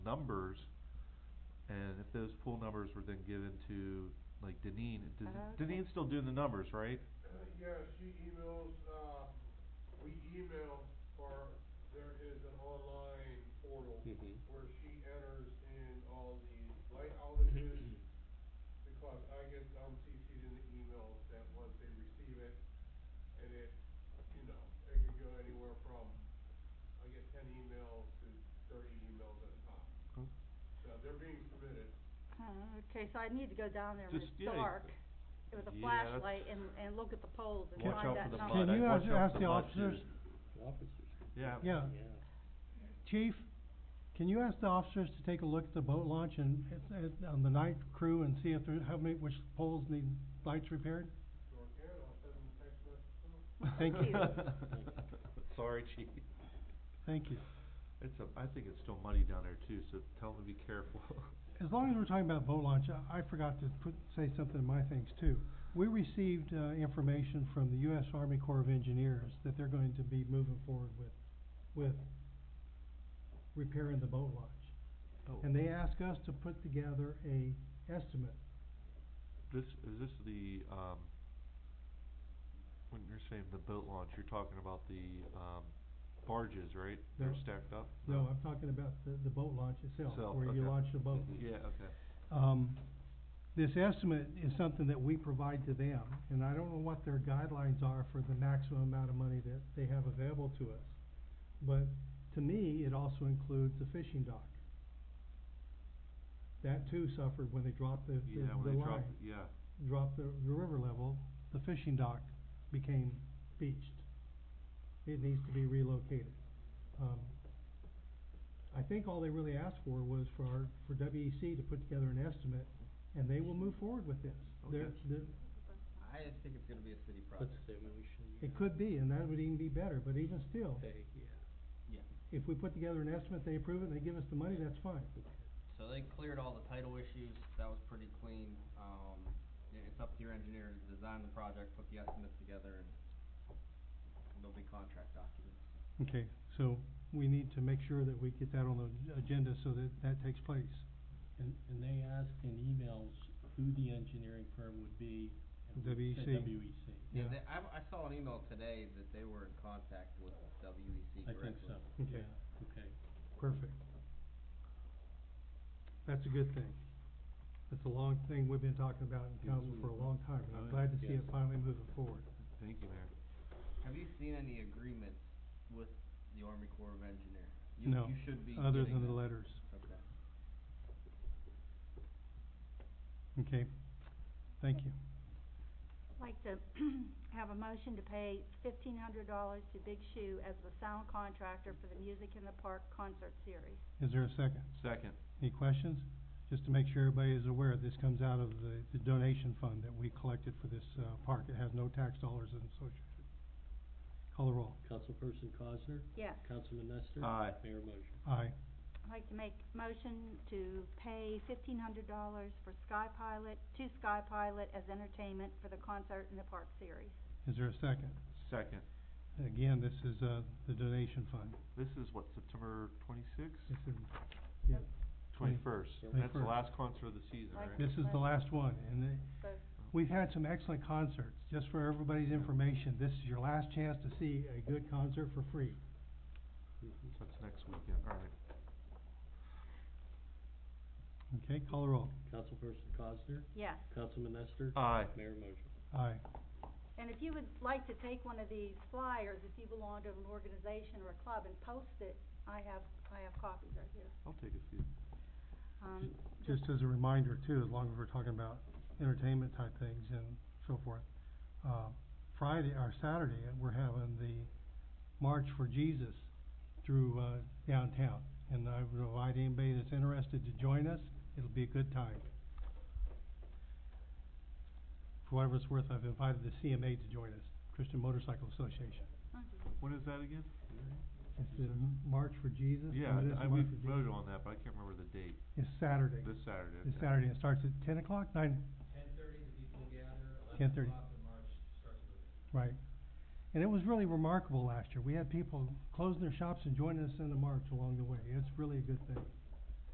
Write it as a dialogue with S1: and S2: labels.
S1: numbers, and if those pool numbers were then given to, like Deneen, does-
S2: Okay.
S1: Deneen's still doing the numbers, right?
S3: Uh, Yeah, she emails, uh, we email, or there is an online portal
S4: Mhm.
S3: where she enters in all the light outages, because I get, um, CC'd in the email that once they receive it, and it, you know, it could go anywhere from, I get ten emails to thirty emails at a time.
S1: Hmm.
S3: So they're being submitted.
S2: Uh, Okay, so I need to go down there when
S1: Just,
S2: it's
S1: yeah,
S2: dark with a
S1: yeah,
S2: flashlight and, and look at the poles and
S1: Watch out
S2: find
S1: for
S2: that
S1: the
S2: number.
S1: mud,
S5: Can
S1: I'd
S5: you
S1: watch
S5: ask-
S1: out
S5: ask
S1: for
S5: the
S1: mud,
S5: officers?
S1: dude.
S4: Officers.
S1: Yeah.
S5: Yeah.
S4: Yeah.
S5: Chief, can you ask the officers to take a look at the boat launch and, and, on the night crew and see if there, how many, which poles need lights repaired?
S3: Sure can, I'll send them a text message.
S5: Thank you,
S1: Sorry, chief.
S5: thank you.
S1: It's a, I think it's still muddy down there too, so tell them to be careful.
S5: As long as we're talking about boat launch, I, I forgot to put, say something in my things too. We received, uh, information from the US Army Corps of Engineers that they're going to be moving forward with, with repairing the boat launch.
S1: Oh,
S5: And they asked us to put together a estimate.
S1: This, is this the, um, when you're saying the boat launch, you're talking about the, um, barges, right? They're
S5: No.
S1: stacked up?
S5: No, I'm talking about the, the boat launch itself,
S1: Itself,
S5: where you
S1: okay.
S5: launch the boat.
S1: Yeah, okay.
S5: Um, this estimate is something that we provide to them, and I don't know what their guidelines are for the maximum amount of money that they have available to us. But to me, it also includes the fishing dock. That too suffered when they dropped the, the,
S1: Yeah,
S5: the
S1: when they drop,
S5: line,
S1: yeah.
S5: dropped the, the river level, the fishing dock became beached. It needs to be relocated. Um, I think all they really asked for was for our, for WEC to put together an estimate, and they will move forward with this. They're,
S1: Okay.
S5: they're,
S6: I just think it's gonna be a city
S4: Let's
S6: project.
S4: say we should.
S5: it could be, and that would even be better, but even still,
S4: Hey, yeah.
S5: if we put together an estimate, they approve it, and they give us the money, that's fine.
S6: So they cleared all the title issues, that was pretty clean, um, yeah, it's up to your engineer to design the project, put the estimates together, and they'll be contract documents.
S5: Okay, so we need to make sure that we get that on the agenda so that that takes place.
S4: And, and they asked in emails who the engineering firm would be. E and
S1: E
S4: we said
S5: WEC.
S4: WEC.
S5: Yeah.
S6: They, I, I saw an email today that they were in contact with WEC
S4: I
S6: directly.
S4: think so.
S5: Okay.
S4: Yeah, Okay.
S5: Perfect. That's a good thing. That's a long thing we've been talking about in
S4: Yes,
S5: council
S4: we
S5: for a
S4: have.
S5: long time, and
S1: Oh,
S5: I'm glad to see it
S4: yes.
S5: finally moving forward.
S1: Thank you, Mayor.
S6: Have you seen any agreements with the Army Corps of Engineers? You-
S5: No,
S6: You should be
S5: other
S6: getting
S5: than the
S6: that.
S5: letters.
S6: Okay.
S5: Okay, thank you.
S2: I'd Like to have a motion to pay fifteen hundred dollars to Big Shoe as the sound contractor for the Music in the Park concert series.
S5: Is there a second?
S1: Second.
S5: Any questions? Just to make sure everybody is aware, this comes out of the, the donation fund that we collected for this, uh, park. It has no tax dollars associated. Call the roll.
S4: Councilperson Cosner,
S2: Yes.
S4: Councilman Nestor.
S1: Aye.
S4: Mayor motion.
S5: Aye.
S2: I'd like to make motion to pay fifteen hundred dollars for Sky Pilot, to Sky Pilot as entertainment for the concert in the park series.
S5: Is there a second?
S1: Second.
S5: Again, this is, uh, the donation fund.
S1: This is what, September twenty-sixth?
S5: This is, yeah. Twenty-
S1: Twenty-first.
S5: Yeah.
S1: That's the
S5: 21st.
S1: last concert of the season,
S2: Like-
S1: right?
S5: This is the last one, and it-
S2: So,
S5: we've had some excellent concerts. Just for everybody's information, this is your last chance to see a good concert for free.
S4: Mhm.
S1: That's next weekend, all right.
S5: Okay, call the roll.
S4: Councilperson Cosner,
S2: yes.
S4: Councilman Nestor.
S1: Aye.
S4: Mayor motion.
S5: Aye.
S2: And if you would like to take one of these flyers, if you belong to an organization or a club and post it, I have, I have copies right here.
S1: I'll take a few.
S2: Um,
S5: Just as a reminder too, as long as we're talking about entertainment type things and so forth, uh, Friday, or Saturday, uh, we're having the March for Jesus through, uh, downtown. And I would invite anybody that's interested to join us. It'll be a good time. For whatever it's worth, I've invited the CMA to join us, Christian Motorcycle Association.
S1: When is that again?
S5: It's the March for Jesus.
S1: Yeah,
S5: and it is
S1: I, I- we
S5: March for Jesus.
S1: voted on that, but I can't remember the date.
S5: It's Saturday.
S1: This Saturday.
S5: It's
S1: okay.
S5: Saturday. It starts at ten o'clock, nine,
S6: Ten thirty, the people gather,
S5: 10:30.
S6: in March, starts moving.
S5: Right. And it was really remarkable last year. We had people closing their shops and joining us in the march along the way. It's really a good thing.